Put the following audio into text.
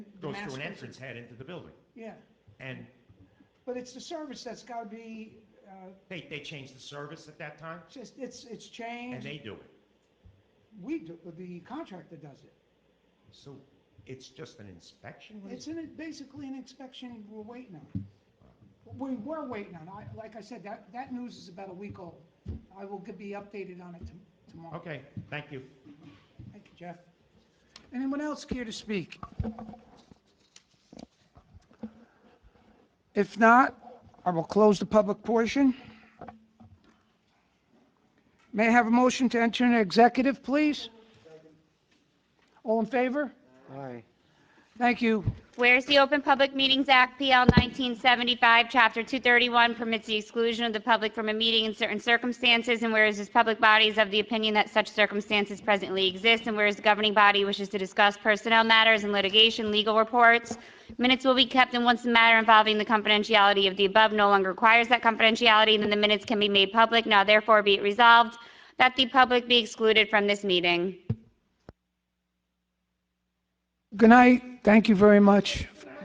goes through an Mascot. entrance head into the building. Yeah, And but it's the service that's got to be, uh, they, they changed the service at that time, just, it's, it's and changed. they do it. We do, the contractor does it. So it's just an inspection? It's an, basically an inspection we're waiting on. We were waiting on, I, like I said, that, that news is about a week old. I will get- be updated on it tom- tomorrow. Okay, thank you. Thank you, Jeff. Anyone else care to speak? If not, I will close the public portion. May I have a motion to enter an executive, please? All in favor? Aye. Thank you. Whereas the Open Public Meetings Act, PL 1975, Chapter 231 permits the exclusion of the public from a meeting in certain circumstances, and whereas this public body is of the opinion that such circumstances presently exist, and whereas the governing body wishes to discuss personnel matters and litigation, legal reports, minutes will be kept, and once the matter involving the confidentiality of the above no longer requires that confidentiality, then the minutes can be made public. Now therefore be it resolved that the public be excluded from this meeting. Good night. Thank you very much.